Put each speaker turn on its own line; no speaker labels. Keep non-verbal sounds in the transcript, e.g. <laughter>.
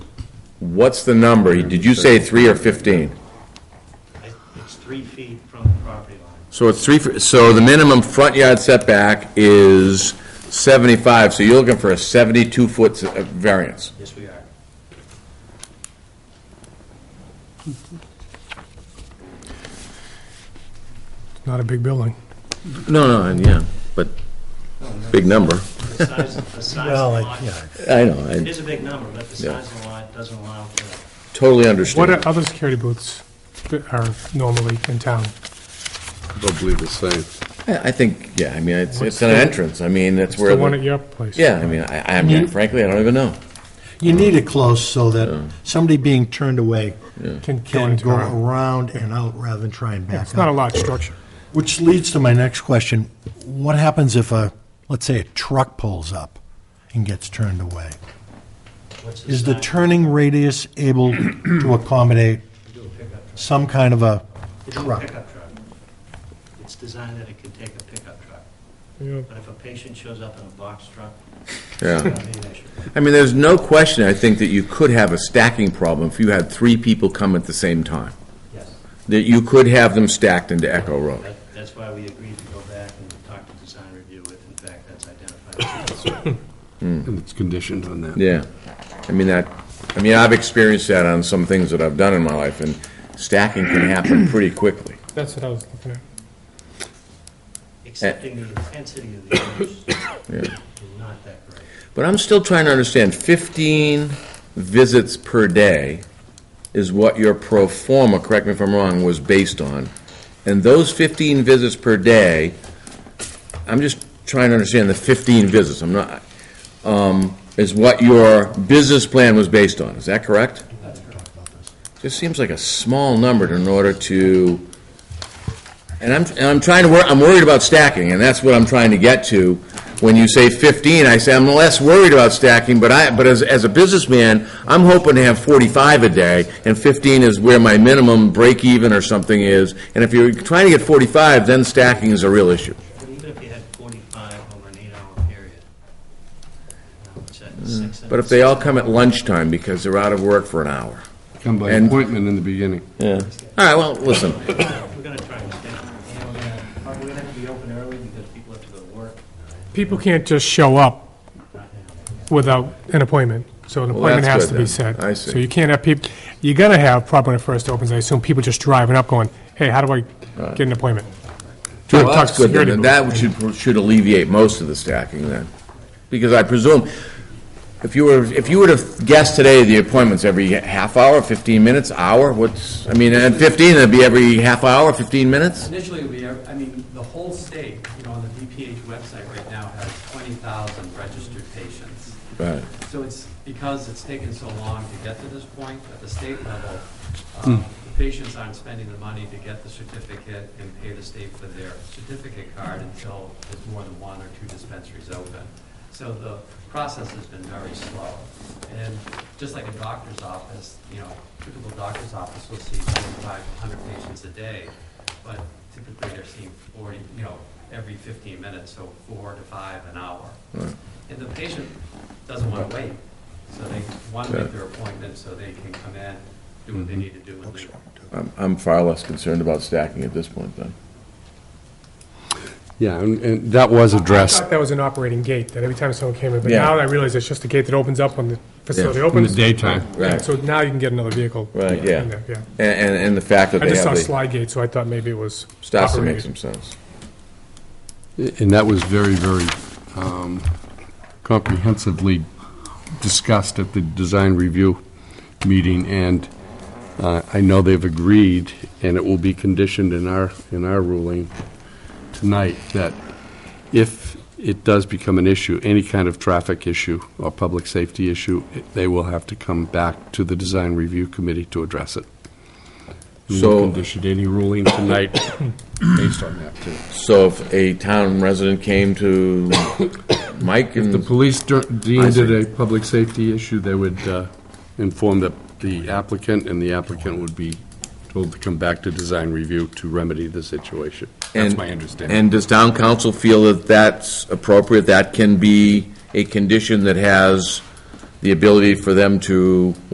What's the number? Did you say three or 15?
I- It's three feet from the property line.
So it's three, so the minimum front yard setback is 75, so you're looking for a 72-foot uh, variance.
Yes, we are.
Not a big building.
No, no, and yeah, but, big number.
The size, the size
Well,
of
it-
the lot,
yeah,
I know,
it
I
is a big number, but the
Yeah.
size of the lot doesn't allow for that.
totally
What
understand.
are other security booths that are normally in town?
Probably the same.
I I think, yeah, I mean, it's, it's an entrance, I mean, that's
It's the
where,
one at
the-
your Mm-hmm. place.
yeah, I mean, I, I mean, frankly, I don't even know.
you need it close so that somebody being turned away
Can go
can
into
go
our-
around and out rather than try and
It's
back
not a
up.
large structure.
Which leads to my next question. What happens if a, let's say, a truck pulls up and gets turned away?
What's the
Is the
size?
turning radius able to accommodate
We do a pickup truck.
some kind of a
We do a
truck?
pickup truck. It's designed that it can take a pickup truck.
You
But if a patient shows up in a box truck, it's
Yeah.
going to be an issue.
I mean, there's no question, I think, that you could have a stacking problem if you had three people come at the same time.
Yes,
That you could have them stacked into Echo Road.
that, that's why we agreed to go back and talk to design review with, in fact, that's identified.
And it's conditioned on that.
Yeah, I mean, that, I mean, I've experienced that on some things that I've done in my life, and stacking can happen pretty quickly.
know, That's what I was looking at.
Eh. Accepting the intensity of the use is not that great.
But I'm still trying to understand, 15 visits per day is what your pro forma, correct me if I'm wrong, was based on. And those 15 visits per day, I'm just trying to understand the 15 visits, I'm not, um, is what your business plan was based on, is that correct? Just seems like a small number in order to, and I'm, and I'm trying to, wor- I'm worried about stacking, and that's what I'm trying to get to. When you say 15, I say I'm less worried about stacking, but I, but as, as a businessman, I'm hoping to have 45 a day, and 15 is where my minimum break even or something is. And if you're trying to get 45, then stacking is a real issue.
But even if you had forty-five over an eight-hour period, uh, which is six.
Hmm. But if they all come at lunchtime because they're out of work for an hour.
Come by
And-
appointment in the beginning.
Yeah. All right, well, listen,
We're gonna try and stay, you know, we're gonna, are we gonna have to be open early because people have to go to work?
People can't just show up without an appointment, so an
Well,
appointment
that's
has to
good
be
then.
set.
I see.
So you can't have people, you're gonna have, probably when it first opens, I assume people just driving up going, hey, how do I get an appointment?
well,
Talk
that's good, then,
security
and
booth.
that should, should alleviate most of the stacking then. Because I presume, if you were, if you were to guess today the appointments every half hour, fifteen minutes, hour, what's, I mean, at fifteen, it'd be every half hour, fifteen minutes?
Initially, we are, I mean, the whole state, you know, on the VPH website right now has 20,000 registered patients.
Right.
So it's because it's taken so long to get to this point, at the state level, um, the patients aren't spending the money to get the certificate and pay the state for their certificate card until there's more than one or two dispensaries open. So the process has been very slow. And just like a doctor's office, you know, typical doctor's office will see 2,500 patients a day, but typically they're seeing 40, you know, every 15 minutes, so four to five an hour. And the patient doesn't want to wait, so they want to make their appointment so they can come in, do what they need to do and leave.
I'm, I'm far less concerned about stacking at this point then.
Yeah, and, and that was
I
addressed.
thought that was an operating gate, that every time someone came in, but
Yeah.
now I realize it's just a gate that opens up when the facility
Yeah.
In the
opens.
daytime.
Yeah,
Right.
So now you can get another vehicle.
Right,
in
yeah.
there, Yeah.
And, and, and the fact that
I
they
just saw
have the,
slide gate, so I thought maybe it was
starts to make
operated.
some sense.
And that was very, very um, comprehensively discussed at the design review meeting, and uh, I know they've agreed, and it will be conditioned in our, in our ruling tonight, that if it does become an issue, any kind of traffic issue or public safety issue, it- they will have to come back to the design review committee to address it. We will
So-
condition any ruling tonight based on that, too.
So if a town resident came to <coughs> Mike
If the
and,
police der- deemed
Hmm. see.
it a public safety issue, they would uh, inform the the applicant, and the applicant would be told to come back to design review to remedy the situation. That's
And-
my understanding.
and does town council feel that that's appropriate, that can be a condition that has the ability for them to